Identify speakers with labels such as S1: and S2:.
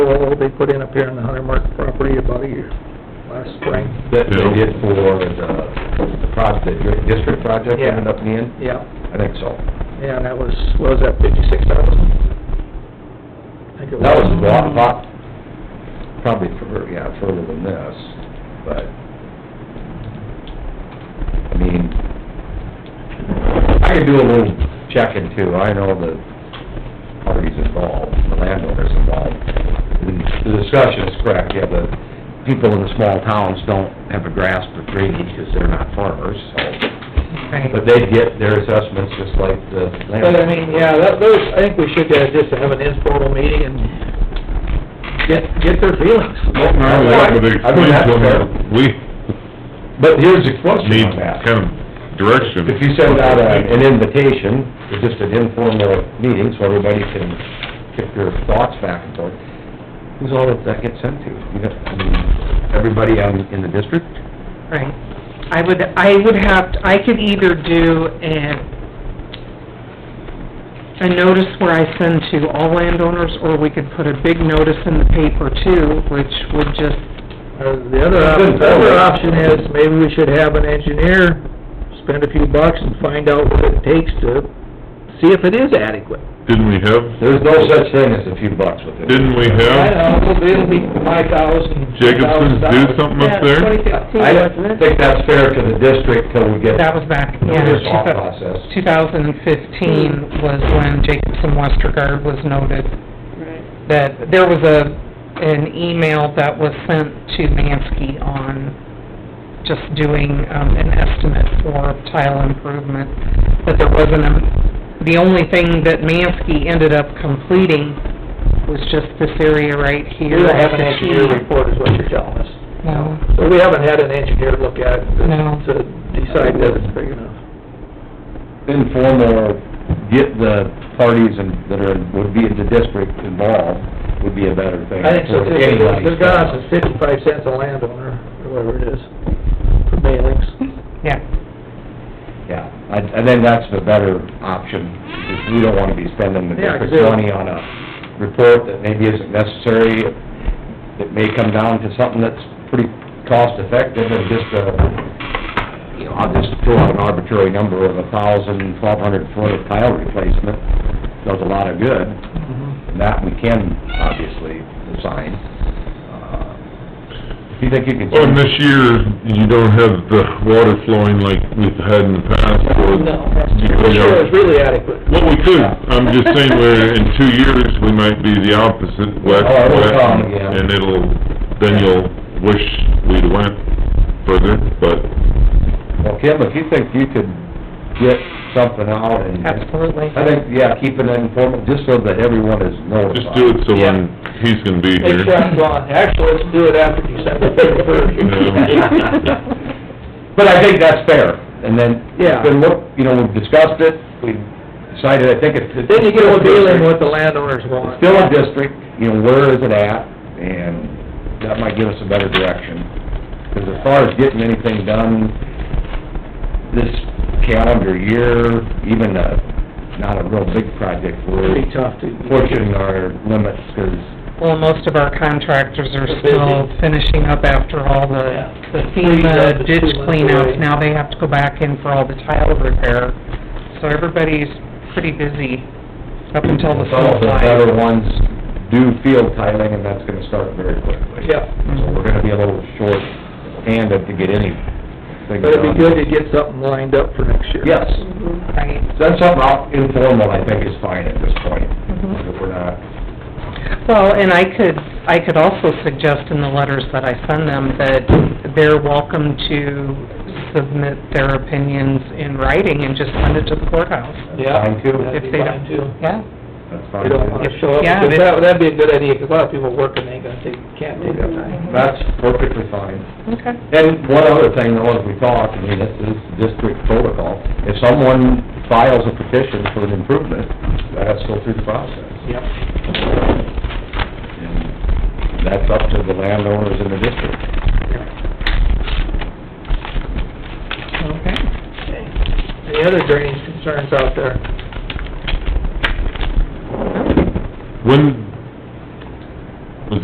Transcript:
S1: control they put in up here on the Hunter Mark property about a year, last spring.
S2: That they
S3: Yeah.
S2: did for the, the project, the district project
S1: Yeah.
S2: ended up being?
S1: Yeah,
S2: I think so.
S1: yeah, and that was, what was that, fifty-six thousand? I think it
S2: That was a lot, lot, probably fur yeah, further than this, but, I mean, I could do a little checking too, I know the parties involved, the landowners involved. The discussion is correct, yeah, the people in the small towns don't have a grasp of drainage because they're not farmers, so,
S1: Right.
S2: but they get their assessments just like the
S1: But I
S2: landowners.
S1: mean, yeah, that, those, I think we should uh, just have an informal meeting and get, get their feelings.
S3: Well, now that
S2: I
S3: would
S2: mean,
S3: explain
S2: that's
S3: to
S2: fair.
S3: them, we
S2: But here's the question
S3: need
S2: on that.
S3: kind of direction.
S2: If you send out a- an invitation, it's just an informal meeting, so everybody can get their thoughts back and forth, who's all that that gets sent to? You got, I mean, everybody on, in the district?
S4: Right. I would, I would have, to- I could either do a, a notice where I send to all landowners, or we could put a big notice in the paper too, which would just,
S1: Uh, The other option, the other option is, maybe we should have an engineer spend a few bucks and find out what it takes to see if it is adequate.
S3: Didn't we have,
S2: There's no such thing as a few bucks with it.
S3: didn't we have
S1: know, it'll be five thousand.
S3: Jacobson's do something up there?
S2: I don't think that's fair to the district till we get
S4: that was back, yeah.
S2: this off process.
S4: 2015 was when Jacobson Westergaard was noted. That there was a, an email that was sent to Mansky on just doing um, an estimate for tile improvement, but there wasn't a, the only thing that Mansky ended up completing was just this area right
S1: We
S4: here.
S1: don't have an engineer report is what you're telling us.
S4: No,
S1: So we haven't had an engineer look at it
S4: No.
S1: to decide that it's big enough.
S2: informal, get the parties and, that are, would be in the district involved, would be a better thing.
S1: I think so,
S2: for
S1: too.
S2: anybody's-
S1: Their cost is fifty-five cents a landowner, or whatever it is, for mailings.
S4: yeah.
S2: Yeah, I, I think that's the better option, because we don't wanna be spending the
S1: Yeah, 'cause
S2: district's
S1: it-
S2: money on a report that maybe isn't necessary. It may come down to something that's pretty cost-effective and just a, you know, I'll just throw out an arbitrary number of a thousand, twelve hundred foot of tile replacement, does a lot of good.
S1: Mm-hmm.
S2: And that we can obviously assign. Uh, If you think you can...
S3: Well, and this year, you don't have the water flowing like we've had in the past, or... You
S1: For
S3: know,
S1: sure, it's really adequate.
S3: Well, we could, I'm just saying, we're, in two years, we might be the opposite, whack,
S2: Oh, it'll
S3: whack,
S2: come, yeah.
S3: and it'll, then you'll wish we'd went further, but,
S2: Well, Kim, if you think you could get something out and...
S4: Absolutely.
S2: I think, yeah, keep it informal, just so that everyone is notified.
S3: just do it so when he's gonna be
S1: Make
S3: here.
S1: sure I'm gone. Actually, let's do it after December
S3: Yeah.
S1: thirty-first.
S2: But I think that's fair, and then,
S1: Yeah.
S2: then look, you know, we've discussed it, we decided, I think it's...
S1: Then you get a feeling what the landowners
S2: It's
S1: want.
S2: Still a district, you know, where is it at, and that might give us a better direction. Because as far as getting anything done this calendar year, even a, not a real big project, we're
S1: Pretty tough to.
S2: pushing our limits, because
S4: Well, most of our contractors are
S1: They're busy.
S4: still finishing up after all
S1: Yeah.
S4: the the
S1: Cleanup
S4: FEMA
S1: is
S4: ditch
S1: too much away.
S4: cleanouts. Now they have to go back in for all the tile repair. So everybody's pretty busy up until the
S2: some
S4: snow
S2: of the
S4: flies.
S2: better ones do field tiling, and that's gonna start very quickly.
S1: Yeah,
S2: So we're gonna be a little short-handed to get anything done.
S1: but it'd be good to get something lined up for next year.
S2: Yes,
S4: Right.
S2: that's something I'll- informal, I think, is fine at this point,
S4: Mhm.
S2: if we're not
S4: Well, and I could, I could also suggest in the letters that I send them that they're welcome to submit their opinions in writing and just send it to the courthouse.
S1: Yeah.
S2: Fine, too.
S1: That'd be
S4: If they
S1: fine,
S4: don't-
S1: too.
S4: Yeah,
S2: That's
S1: We don't wanna
S2: fine.
S1: show up,
S4: Yeah.
S1: because that, that'd be a good idea, because a lot of people working, they ain't gonna take, can't take that time.
S2: That's perfectly fine.
S4: okay.
S2: And one other thing, though, as we talk, I mean, this is district protocol, if someone files a petition for an improvement, that has to go through the process.
S1: Yep.
S2: And that's up to the landowners in the district.
S1: Okay.
S4: Okay.
S1: Any other drainage concerns out there?
S3: When,